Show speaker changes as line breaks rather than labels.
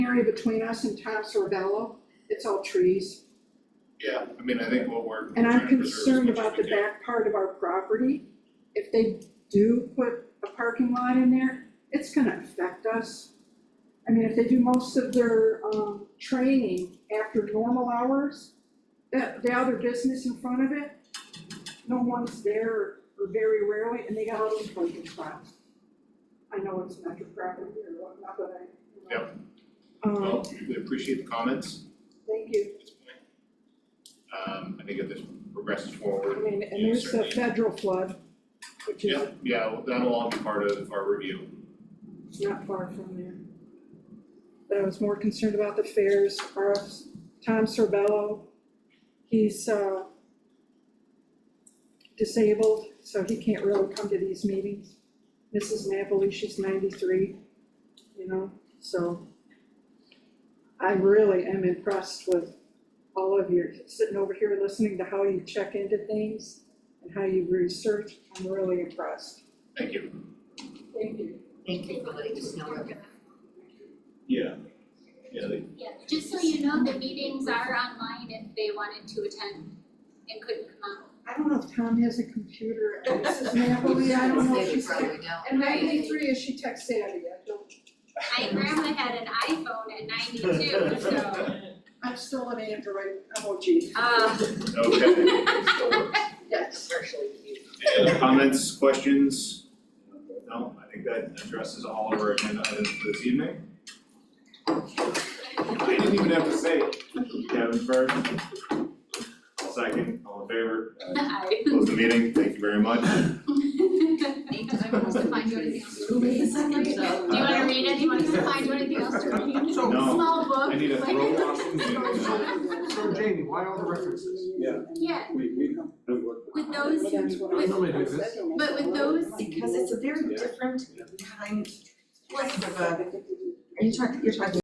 area between us and Tom Sorvello, it's all trees.
Yeah, I mean, I think what we're.
And
trying
I'm
to preserve
concerned
as much
about
as we
the
can.
back part of our property. If they do put a parking lot in there, it's gonna affect us. I mean, if they do most of their, um, training after normal hours, that, the other business in front of it, no one's there or very rarely, and they got all these parking spots. I know it's not your property or whatnot, but I, you know.
Yep.
Um,
Well, we appreciate the comments.
thank you.
at this point. Um, I think if this progresses
I
forward,
mean, and
Yeah,
there's the
certainly.
federal flood, which is
yeah, yeah, well, that'll all be part of our review.
It's not far from there. But I was more concerned about the fairs, or else Tom Sorbello, he's, uh, disabled, so he can't really come to these meetings. Mrs. Napoli, she's ninety-three, you know, so I really am impressed with all of you, sitting over here listening to how you check into things and how you research, I'm really impressed.
Thank you.
Thank you.
Thank you for letting us know.
Yeah. Yeah, they-
Yeah, just so you know, the meetings are online if they wanted to attend and couldn't come out.
I don't know if Tom has a computer, and Mrs. Napoli, I don't know if she's.
Probably don't.
And ninety-three, is she tech savvy? I don't,
My grandma had an iPhone at ninety-two, so,
I'm still an Android emoji.
uh,
okay, still works.
Yes.
Any other comments, questions? No, I think that addresses all of our agenda items for this evening. I didn't even have to say it. Kevin first. Second, all in favor, Uh,
I.
close the meeting, thank you very much.
Thank you. I must have find you anything else to read.
Do you wanna read it, do you want us to find you anything else to read?
So-
No.
Small book.
I need a throw off the meeting.
So Jamie, why all the references?
Yeah,
We, we, we work.
with those,
I
with,
normally do this.
but with those,
Because it's a very different kind, of a, are you talking, you're talking